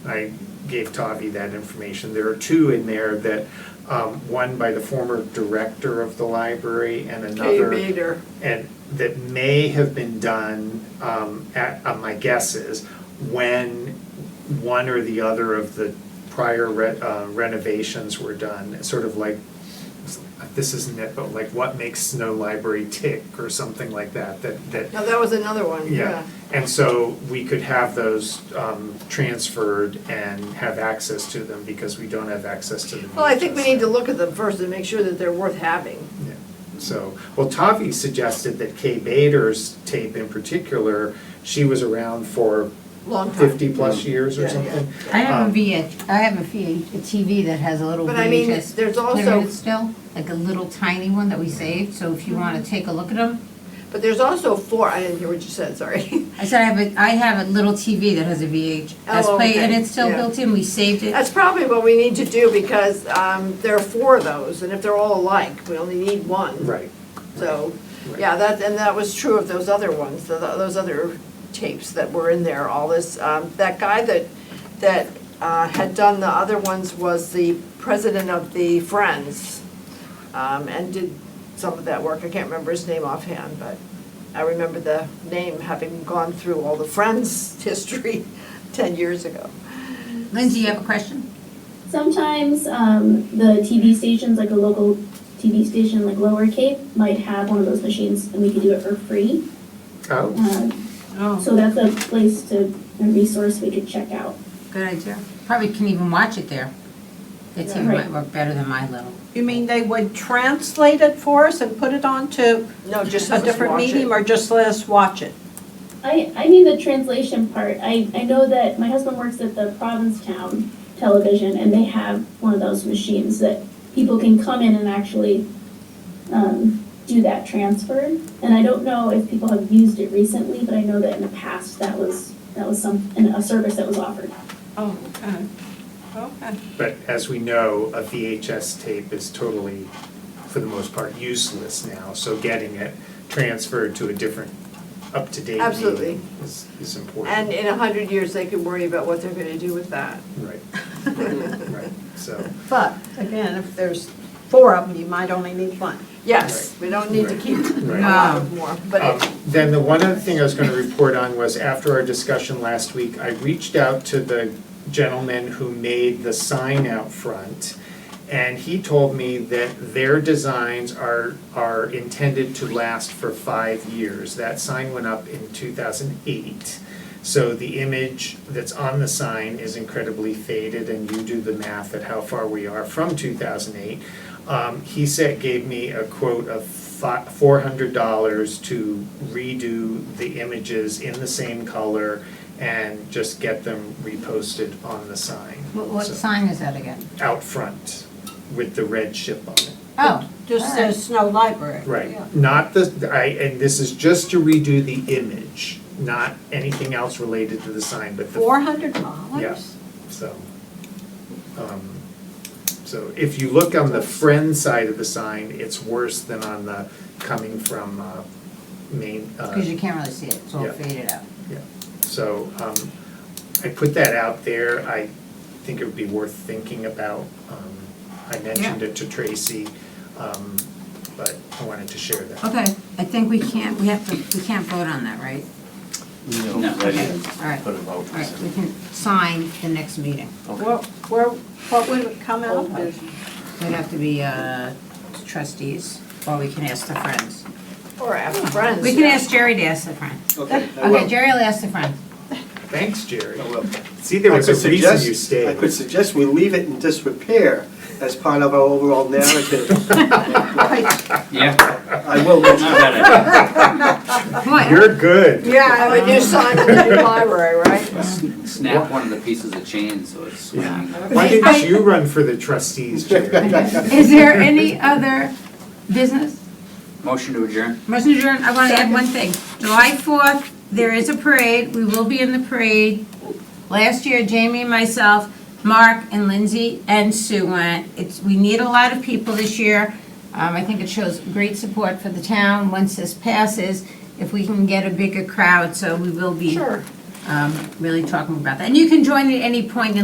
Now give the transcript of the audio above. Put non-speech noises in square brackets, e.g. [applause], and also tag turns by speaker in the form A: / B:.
A: I gave Tavi that information. There are two in there that, um, one by the former director of the library and
B: Kay
A: another
B: Bader.
A: and that may have been done, um, at, uh, my guess is, when one or the other of the prior re- uh, renovations were done, sort of like, this isn't it, but like what makes Snow Library tick or something like that, that, that
B: No, that was another one,
A: yeah,
B: yeah.
A: and so we could have those um, transferred and have access to them because we don't have access to them.
B: Well, I think we need to look at them first and make sure that they're worth having.
A: Yeah. So, well, Tavi suggested that Kay Bader's tape in particular, she was around for
B: Long time.
A: fifty-plus years or
B: Yeah, yeah.
A: something.
C: I have a
A: Um,
C: VH, I have a VH, a TV that has a little
B: But I mean,
C: VHS
B: there's also-
C: player in it still, like a little tiny one that we saved, so if you
B: Mm-hmm.
C: wanna take a look at them.
B: But there's also four, I didn't hear what you said, sorry. [laughs]
C: I said I have a, I have a little TV that has a
B: Oh,
C: VHS player and
B: okay,
C: it's still
B: yeah.
C: built in, we saved it.
B: That's probably what we need to do because um, there are four of those and if they're all alike, we only need one.
A: Right,
B: So,
A: Right.
B: yeah, that, and that was true of those other ones, tho- those other tapes that were in there, all this. um, That guy that, that uh, had done the other ones was the president of the Friends um, and did some of that work. I can't remember his name offhand, but I remember the name having gone through all the Friends [laughs] history 10 years ago.
C: Lindsay, you have a question?
D: Sometimes um, the TV stations, like a local TV station like Lower Cape, might have one of those machines and we could do it for free.
A: oh,
D: Um,
C: Oh.
D: so that's a place to, a resource we could check out.
C: Good idea, probably can even watch it there. That TV
D: Right.
C: might work better than my little.
E: You mean they would translate it for us and put it onto
B: No, just
E: a
B: let us
E: different
B: watch it.
E: medium or just let us watch it?
D: I, I mean the translation part. I, I know that my husband works at the Provincetown television and they have one of those machines that people can come in and actually um, do that transfer. And I don't know if people have used it recently, but I know that in the past that was that was some an, a service that was offered.
E: Oh, okay, okay.
A: but as we know, a VHS tape is totally, for the most part, useless now, so getting it transferred to a different, up-to-date
B: Absolutely.
A: medium is, is important.
B: And in a 100 years, they could worry about what they're going to do with that.
A: Right, right, right, so,
E: But again, if there's four of them, you might only need one.
B: Yes, we don't need to keep a
A: Right.
B: lot of more,
A: Um,
B: but it-
A: Then the one other thing I was gonna report on was after our discussion last week, I reached out to the gentleman who made the sign out front. And he told me that their designs are, are intended to last for five years. That sign went up in two thousand eight. So the image that's on the sign is incredibly faded and you do the math at how far we are from two thousand eight. Um, he said, gave me a quote of four hundred dollars to redo the images in the same color and just get them reposted on the sign.
C: What, what
A: So,
C: sign is that again?
A: Out front with the red ship on it.
C: Oh,
E: [laughs] Just
C: all right.
E: says Snow Library. Yeah.
A: Right, not the, I, and this is just to redo the image, not anything else related to the sign, but the.
E: Four hundred dollars?
A: Yeah. So, um, so if you look on the friend side of the sign, it's worse than on the coming from, uh, main, uh,
C: Cause you can't really see it, it's all
A: Yeah.
C: faded out.
A: yeah. So, um, I put that out there, I think it would be worth thinking about. Um, I mentioned it to Tracy, um, but I wanted to share that.
C: Okay, I think we can't, we have to, we can't vote on that, right?
F: No, I
C: Okay,
F: didn't
C: all right.
F: put a vote.
C: All right, we can sign the next meeting.
E: Where, where, what would it come out of?
C: We'd have to be uh, trustees, or we can ask the friends.
B: or after friends.
C: We can ask Jerry to ask the friend.
F: Okay, I
C: Okay,
F: will.
C: Jerry will ask the friend.
A: Thanks, Jerry.
F: I will.
A: See, there
F: Oh, I
A: was a
F: could
A: reason
F: suggest-
A: you stayed.
F: I could suggest we leave it in disrepair as part of our overall narrative. [laughs]
G: Yeah,
F: I will
G: not bad idea.
C: What?
A: You're good.
B: Yeah, I would do sign in the new library, right?
G: Snap one of the pieces of chain so it's swinging.
A: Why didn't you run for the trustees, Jerry?
F: [laughs]
C: Is there any other business?
G: Motion to adjourn.
C: Motion adjourned, I want to add one thing. July 4th, there is a parade, we will be in the parade. Last year, Jamie and myself, Mark and Lindsay and Sue went. It's, we need a lot of people this year. Um, I think it shows great support for the town once this passes, if we can get a bigger crowd, so we will be
B: Sure.
C: um, really talking about that. And you can join at any point in